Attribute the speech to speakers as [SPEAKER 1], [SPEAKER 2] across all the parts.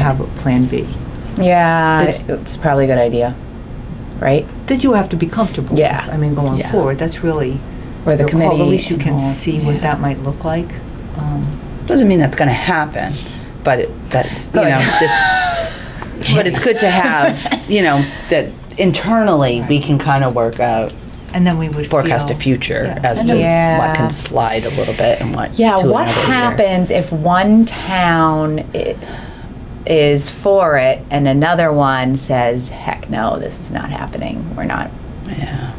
[SPEAKER 1] have a plan B.
[SPEAKER 2] Yeah,
[SPEAKER 1] That's-
[SPEAKER 2] it's probably a good idea, right?
[SPEAKER 1] That you have to be comfortable with,
[SPEAKER 2] Yeah.
[SPEAKER 1] I mean, going
[SPEAKER 3] Yeah.
[SPEAKER 1] forward, that's really.
[SPEAKER 2] Or the
[SPEAKER 1] your call.
[SPEAKER 2] committee
[SPEAKER 1] At least you
[SPEAKER 2] and
[SPEAKER 1] can
[SPEAKER 2] all,
[SPEAKER 1] see what
[SPEAKER 3] yeah.
[SPEAKER 1] that might look like. Um,
[SPEAKER 3] Doesn't mean that's going to happen, but it, that's you
[SPEAKER 2] Good.
[SPEAKER 3] know this. But it's good to have you know that internally we can kind of work out
[SPEAKER 1] And then we would
[SPEAKER 3] forecast a
[SPEAKER 1] feel-
[SPEAKER 3] future
[SPEAKER 1] yeah.
[SPEAKER 3] as
[SPEAKER 1] And
[SPEAKER 3] to
[SPEAKER 1] then-
[SPEAKER 2] Yeah.
[SPEAKER 3] what can slide a little bit and what.
[SPEAKER 2] Yeah,
[SPEAKER 3] to
[SPEAKER 2] what
[SPEAKER 3] another year.
[SPEAKER 2] happens if one town i- is for it and another one says, heck no, this is not happening? We're not.
[SPEAKER 3] Yeah.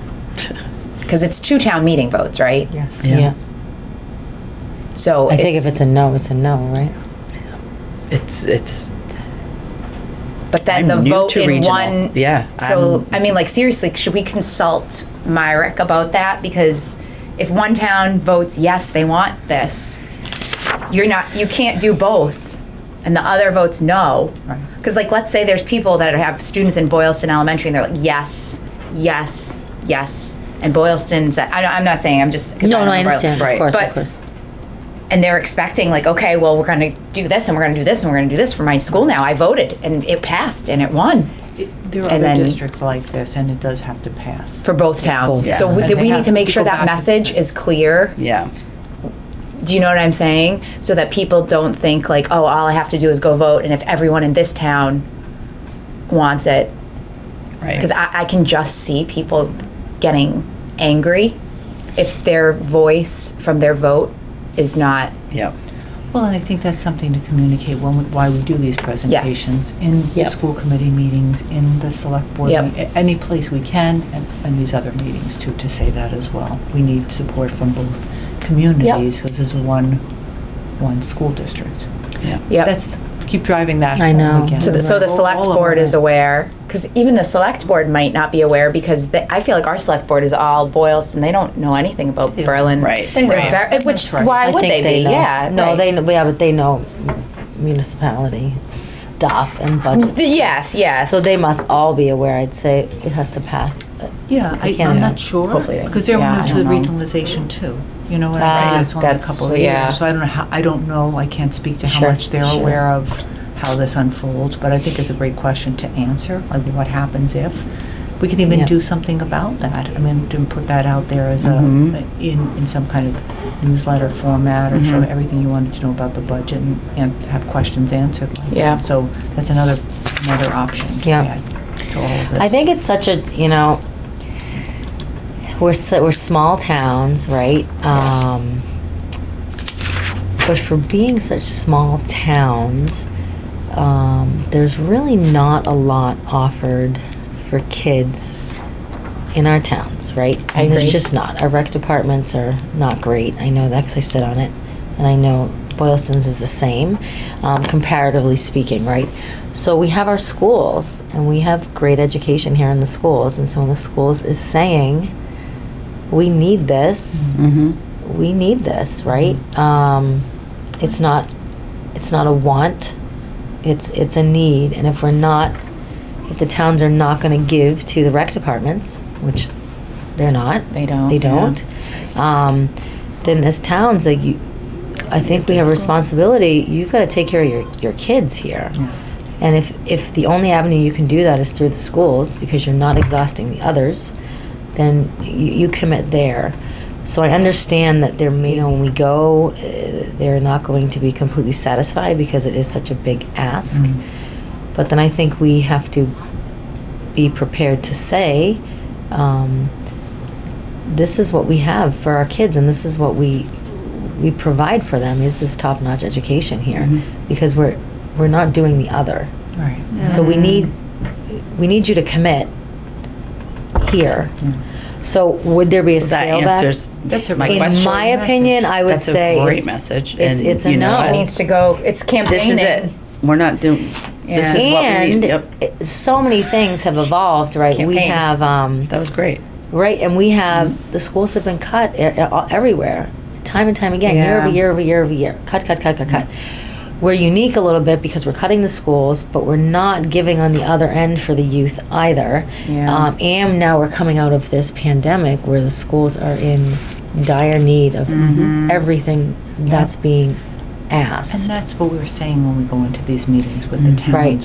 [SPEAKER 2] Because it's two town meeting votes, right?
[SPEAKER 1] Yes.
[SPEAKER 3] Yeah.
[SPEAKER 4] Yeah,
[SPEAKER 2] So
[SPEAKER 4] I think if it's a no, it's a no, right?
[SPEAKER 3] It's it's.
[SPEAKER 2] But then
[SPEAKER 3] I'm
[SPEAKER 2] the
[SPEAKER 3] new
[SPEAKER 2] vote
[SPEAKER 3] to
[SPEAKER 2] in
[SPEAKER 3] regional.
[SPEAKER 2] one.
[SPEAKER 3] Yeah,
[SPEAKER 2] So
[SPEAKER 3] I'm-
[SPEAKER 2] i mean, like seriously, should we consult Myrick about that? Because if one town votes yes, they want this, you're not. You can't do both, and the other votes no.
[SPEAKER 1] Right.
[SPEAKER 2] Because like, let's say there's people that have students in Boylston Elementary, and they're like yes, yes, yes, and Boylston's. I, I'm not saying. I'm just. 'cause
[SPEAKER 4] No,
[SPEAKER 2] don't
[SPEAKER 4] no, I
[SPEAKER 2] know Boylston.
[SPEAKER 4] understand, of
[SPEAKER 3] Right.
[SPEAKER 4] course,
[SPEAKER 2] But-
[SPEAKER 4] of course.
[SPEAKER 2] And they're expecting like, okay, well, we're going to do this, and we're going to do this, and we're going to do this for my school now. I voted, and it passed, and it won.
[SPEAKER 1] It- There are
[SPEAKER 2] And
[SPEAKER 1] other
[SPEAKER 2] then-
[SPEAKER 1] districts like this, and it does have to pass.
[SPEAKER 2] for both towns.
[SPEAKER 3] both
[SPEAKER 2] So we,
[SPEAKER 1] towns.
[SPEAKER 2] that we
[SPEAKER 1] Yeah.
[SPEAKER 2] need to make sure
[SPEAKER 1] Go
[SPEAKER 2] that
[SPEAKER 1] back to-
[SPEAKER 2] message is clear.
[SPEAKER 3] Yeah.
[SPEAKER 2] Do you know what I'm saying? So that people don't think like, oh, all I have to do is go vote, and if everyone in this town wants it,
[SPEAKER 3] Right.
[SPEAKER 2] because I, I can just see people getting angry if their voice from their vote is not
[SPEAKER 3] Yep.
[SPEAKER 1] Well, and I think that's something to communicate when, we- why we do these presentations. In the
[SPEAKER 4] Yep.
[SPEAKER 1] school committee meetings, in the select board,
[SPEAKER 2] Yep.
[SPEAKER 1] meet- a- any place we can, and, and these other meetings too, to say that as well. We need support from both communities, because this is one, one school district.
[SPEAKER 3] Yeah.
[SPEAKER 2] yeah.
[SPEAKER 1] That's, keep driving that.
[SPEAKER 4] I
[SPEAKER 1] home
[SPEAKER 4] know.
[SPEAKER 1] again.
[SPEAKER 2] So the, so the
[SPEAKER 1] All-
[SPEAKER 2] select
[SPEAKER 1] all of
[SPEAKER 2] board
[SPEAKER 1] it.
[SPEAKER 2] is aware, because even the select board might not be aware, because they, I feel like our select board is all Boylston, they don't know anything about
[SPEAKER 1] Yeah.
[SPEAKER 2] Berlin.
[SPEAKER 3] Right.
[SPEAKER 1] They
[SPEAKER 2] They're
[SPEAKER 1] know.
[SPEAKER 2] ver- eh, Which,
[SPEAKER 1] That's right.
[SPEAKER 2] why
[SPEAKER 4] I
[SPEAKER 2] would
[SPEAKER 4] think
[SPEAKER 2] they be?
[SPEAKER 4] know.
[SPEAKER 2] Yeah.
[SPEAKER 4] No,
[SPEAKER 2] right.
[SPEAKER 4] they, kn- yeah, but they know municipality stuff and
[SPEAKER 2] Th-
[SPEAKER 4] budget.
[SPEAKER 2] Yes, yes.
[SPEAKER 4] So they must all be aware, I'd say it has to pass.
[SPEAKER 1] Yeah, I,
[SPEAKER 4] can't-
[SPEAKER 1] I'm not sure,
[SPEAKER 2] Hopefully they-
[SPEAKER 1] because they're
[SPEAKER 2] yeah,
[SPEAKER 1] new
[SPEAKER 2] I
[SPEAKER 1] to the
[SPEAKER 2] don't know.
[SPEAKER 1] regionalization too, you know, and
[SPEAKER 4] Ah,
[SPEAKER 1] I think it's only a
[SPEAKER 2] that's-
[SPEAKER 1] couple of
[SPEAKER 2] yeah.
[SPEAKER 1] years. So I don't know how, I don't know, I can't speak to how
[SPEAKER 4] Sure,
[SPEAKER 1] much they're
[SPEAKER 4] sure.
[SPEAKER 1] aware of how this unfolds, but I think it's a great question to answer, like what happens if? We could even
[SPEAKER 4] Yeah.
[SPEAKER 1] do something about that, I mean, to put that out there as a, in, in some kind of newsletter format or show everything you wanted to know about the budget and, and have questions answered. like that.
[SPEAKER 2] Yeah.
[SPEAKER 1] So that's another, another option to
[SPEAKER 4] Yeah.
[SPEAKER 1] add to all of this.
[SPEAKER 4] I think it's such a, you know, we're, s- we're small towns, right? Um, but for being such small towns, um, there's really not a lot offered for kids in our towns, right?
[SPEAKER 2] I
[SPEAKER 4] and
[SPEAKER 2] agree.
[SPEAKER 4] There's just not. Our rec departments are not great. I know that because I sit on it, and I know Boylston's is the same, um, comparatively speaking, right? So we have our schools, and we have great education here in the schools, and so when the schools is saying, we need this
[SPEAKER 3] Mm-hmm.
[SPEAKER 4] we need this, right? Um, it's not, it's not a want, it's, it's a need, and if we're not, if the towns are not gonna give to the rec departments, which they're not,
[SPEAKER 2] They don't.
[SPEAKER 4] they
[SPEAKER 2] yeah.
[SPEAKER 4] don't, um, then as towns, like you, I think we have a responsibility, you've gotta take care of your, your kids here.
[SPEAKER 1] Yeah.
[SPEAKER 4] And if, if the only avenue you can do that is through the schools, because you're not exhausting the others, then you, you commit there. So I understand that there may, you know, when we go, uh, they're not going to be completely satisfied because it is such a big ask.
[SPEAKER 1] Mm.
[SPEAKER 4] But then I think we have to be prepared to say, um, this is what we have for our kids, and this is what we we provide for them. Is this top-notch education here?
[SPEAKER 3] Mhm.
[SPEAKER 4] Because we're we're not doing the other.
[SPEAKER 1] Right.
[SPEAKER 4] So
[SPEAKER 3] Um,
[SPEAKER 4] we need we need you to commit here.
[SPEAKER 1] Yeah.
[SPEAKER 4] So would there be a scale
[SPEAKER 3] that
[SPEAKER 4] back?
[SPEAKER 3] answers
[SPEAKER 1] That's a
[SPEAKER 3] my
[SPEAKER 1] great
[SPEAKER 4] In
[SPEAKER 3] question.
[SPEAKER 4] my opinion, I would
[SPEAKER 3] That's a
[SPEAKER 4] say
[SPEAKER 3] great
[SPEAKER 4] it's-
[SPEAKER 3] message,
[SPEAKER 4] It's,
[SPEAKER 3] and
[SPEAKER 4] it's a
[SPEAKER 3] you know
[SPEAKER 4] no.
[SPEAKER 3] what?
[SPEAKER 2] It needs to go, it's
[SPEAKER 3] This
[SPEAKER 2] campaigning.
[SPEAKER 3] is it. We're not doing.
[SPEAKER 2] Yeah.
[SPEAKER 3] This is what we
[SPEAKER 4] and
[SPEAKER 3] need. Yep.
[SPEAKER 4] it- so many things have evolved, right? We
[SPEAKER 2] Campaign.
[SPEAKER 4] have um,
[SPEAKER 3] That was great.
[SPEAKER 4] Right, and we have the schools have been cut e- e- all- everywhere, time and time again, year
[SPEAKER 2] Yeah.
[SPEAKER 4] over year over year over year. Cut, cut, cut, cut, cut. We're unique a little bit because we're cutting the schools, but we're not giving on the other end for the youth either.
[SPEAKER 2] Yeah.
[SPEAKER 4] Um, and now we're coming out of this pandemic where the
[SPEAKER 2] Mm-hmm.
[SPEAKER 4] schools are in dire need of everything that's being asked.
[SPEAKER 1] And that's what we were saying when we go into these meetings with the
[SPEAKER 3] Mm.
[SPEAKER 1] towns.
[SPEAKER 4] Right.